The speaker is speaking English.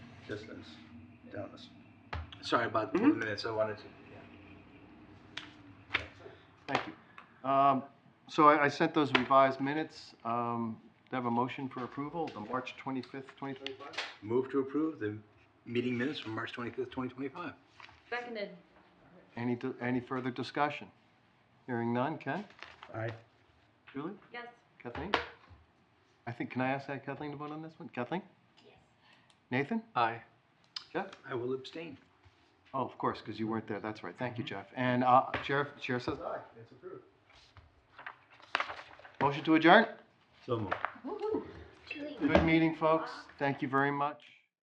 distance down the, s- Mm-hmm. Sorry about the Mhm. minutes, I wanted to. Thank you. Um, So I, I sent those revised minutes. Um, Do I have a motion for approval, the March 25th, 2025? Move to approve the meeting minutes from March twenty-fifth, twenty twenty-five. Seconded. Any, di- any further discussion? Hearing none. Ken? aye, Julie? Yes. Kathleen? I think, can I ask that Kathleen to vote on this one? Kathleen? Yes. Nathan? Aye. Jeff? I will abstain. Oh, of course, because you weren't there. That's right. Thank you, Jeff. And uh, Chair, Chair says aye. It's approved. Motion to adjourn? so moved. Woo-hoo. Julie. Good meeting, folks. Thank you very much.